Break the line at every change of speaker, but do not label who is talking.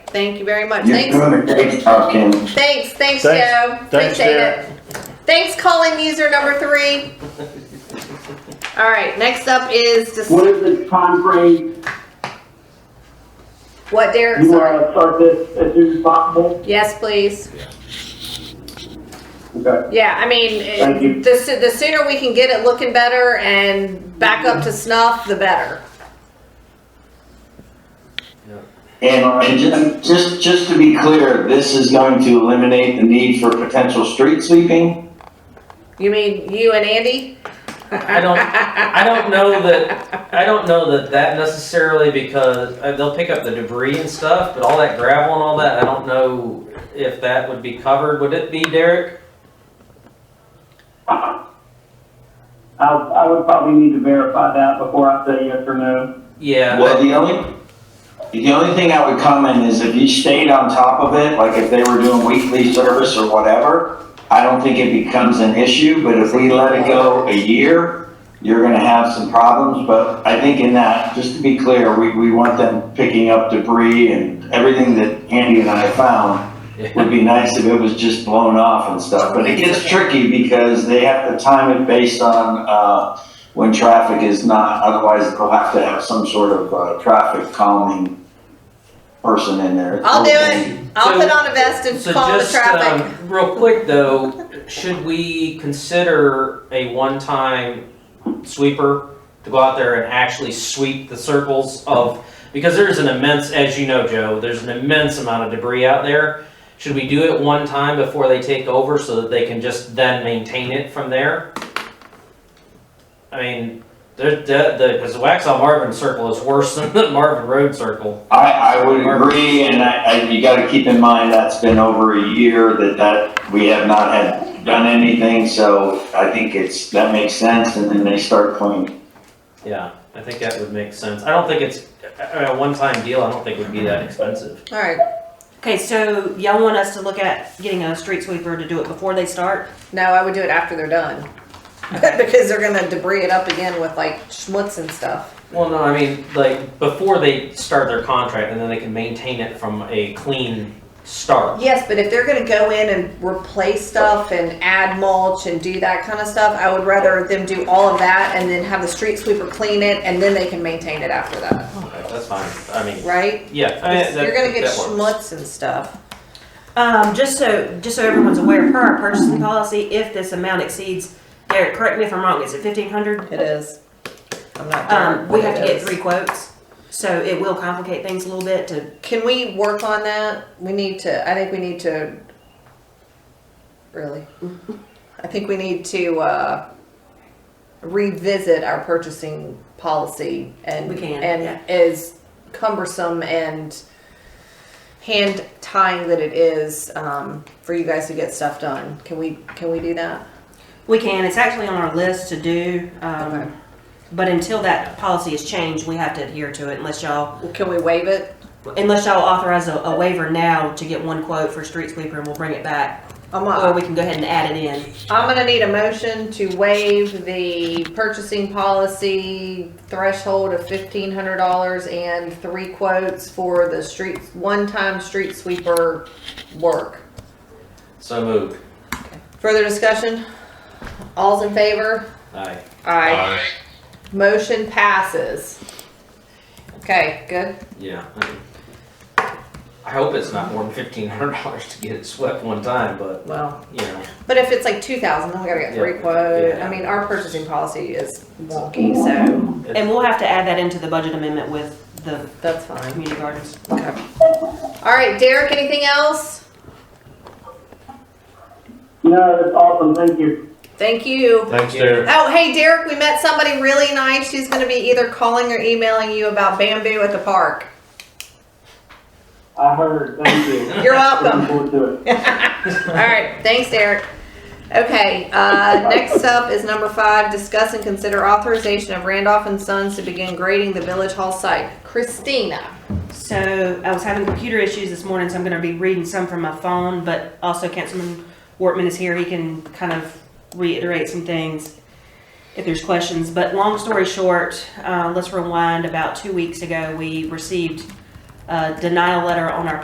Thank you very much.
You're
Thanks.
doing a great talking.
Thanks, thanks,
Thanks.
Joe.
Thanks,
Appreciate
Derek.
it. Thanks, call-in user number three. All right, next up is, dis-
What is the timeframe
what, Derek?
you
Sorry.
want to start this as soon as possible?
Yes, please.
Okay.
Yeah, I mean, it-
Thank you.
the, so- the sooner we can get it looking better and back up to snuff, the better.
And, uh, and just, just, just to be clear, this is going to eliminate the need for potential street sweeping?
You mean you and Andy?
I don't- I don't know that, I don't know that that necessarily because uh, they'll pick up the debris and stuff, but all that gravel and all that, I don't know if that would be covered. Would it be, Derek?
I, I would probably need to verify that before I say yes or no.
Yeah,
Well, the only, the only thing I would comment is if you stayed on top of it, like if they were doing weekly service or whatever, I don't think it becomes an issue, but if we let it go a year, you're gonna have some problems, but I think in that, just to be clear, we, we want them picking up debris and everything that Andy and I found.
yeah,
Would be nice if it was just blown off and stuff, but it gets tricky because they have to time it based on, uh, when traffic is not, otherwise they'll have to have some sort of, uh, traffic calming person in there.
I'll do it. I'll put on a vest and
So
call the
just,
traffic.
um, real quick though, should we consider a one-time sweeper to go out there and actually sweep the circles of, because there's an immense, as you know, Joe, there's an immense amount of debris out there. Should we do it one time before they take over so that they can just then maintain it from there? I mean, the, the, the, cause the Waxaw Marvin circle is worse than the Marvin Road circle.
I, I would agree, and I, I, you gotta keep in mind, that's been over a year that that, we have not had done anything, so I think it's, that makes sense, and then they start cleaning.
Yeah, I think that would make sense. I don't think it's, I mean, a one-time deal, I don't think would be that expensive.
All right.
Okay, so y'all want us to look at getting a street sweeper to do it before they start?
No, I would do it after they're done. because they're gonna debris it up again with like schmutz and stuff.
Well, no, I mean, like, before they start their contract, and then they can maintain it from a clean start.
Yes, but if they're gonna go in and replace stuff and add mulch and do that kind of stuff, I would rather them do all of that and then have the street sweeper clean it and then they can maintain it after that,
That's fine, I mean,
right?
yeah. I mean,
Because
that-
You're gonna get
that works.
schmutz and stuff.
Um, just so, just so everyone's aware, per our purchasing policy, if this amount exceeds, Derek, correct me if I'm wrong, is it fifteen hundred?
It is. I'm not.
Um,
sure
we
what
have to
it
get
is.
three quotes, so it will complicate things a little bit to,
Can we work on that? We need to, I think we need to, really, I think we need to, uh, revisit our purchasing policy and.
We can, yeah.
And as cumbersome and hand tying that it is, um, for you guys to get stuff done. Can we, can we do that?
we can, it's actually on our list to do,
Okay.
um, but until that policy is changed, we have to adhere to it unless y'all,
Can we waive it?
unless y'all authorize a, a waiver now to get one quote for street sweeper and we'll bring it back.
I'm,
Or
not-
we can go ahead and add it in.
I'm gonna need a motion to waive the purchasing policy threshold of fifteen hundred dollars and three quotes for the street, one-time street sweeper work.
So moved,
Further discussion? All's in favor?
aye.
Aye. Motion passes. Okay, good.
Yeah. I hope it's not more than fifteen hundred dollars to get it swept one time, but,
Well,
you know,
but if it's like two thousand, then we gotta get three
Yeah,
quotes.
yeah.
I mean, our purchasing policy is wonky, so
And we'll have to add that into the budget amendment with the
that's fine.
community gardens.
Okay. All right, Derek, anything else?
No, that's awesome. Thank you.
Thank you.
Thanks, Derek.
Oh, hey, Derek, we met somebody really nice. She's going to be either calling or emailing you about bamboo at the park.
I heard. Thank you.
You're
Looking
welcome.
forward to it.
All right, thanks, Derek. Okay, uh, next up is number five discuss and consider authorization of Randolph and Sons to begin grading the Village Hall site. Christina.
So I was having computer issues this morning, so I'm gonna be reading some from my phone, but also Councilman Wortman is here, he can kind of reiterate some things if there's questions, but long story short, uh, let's rewind, about two weeks ago, we received a denial letter on our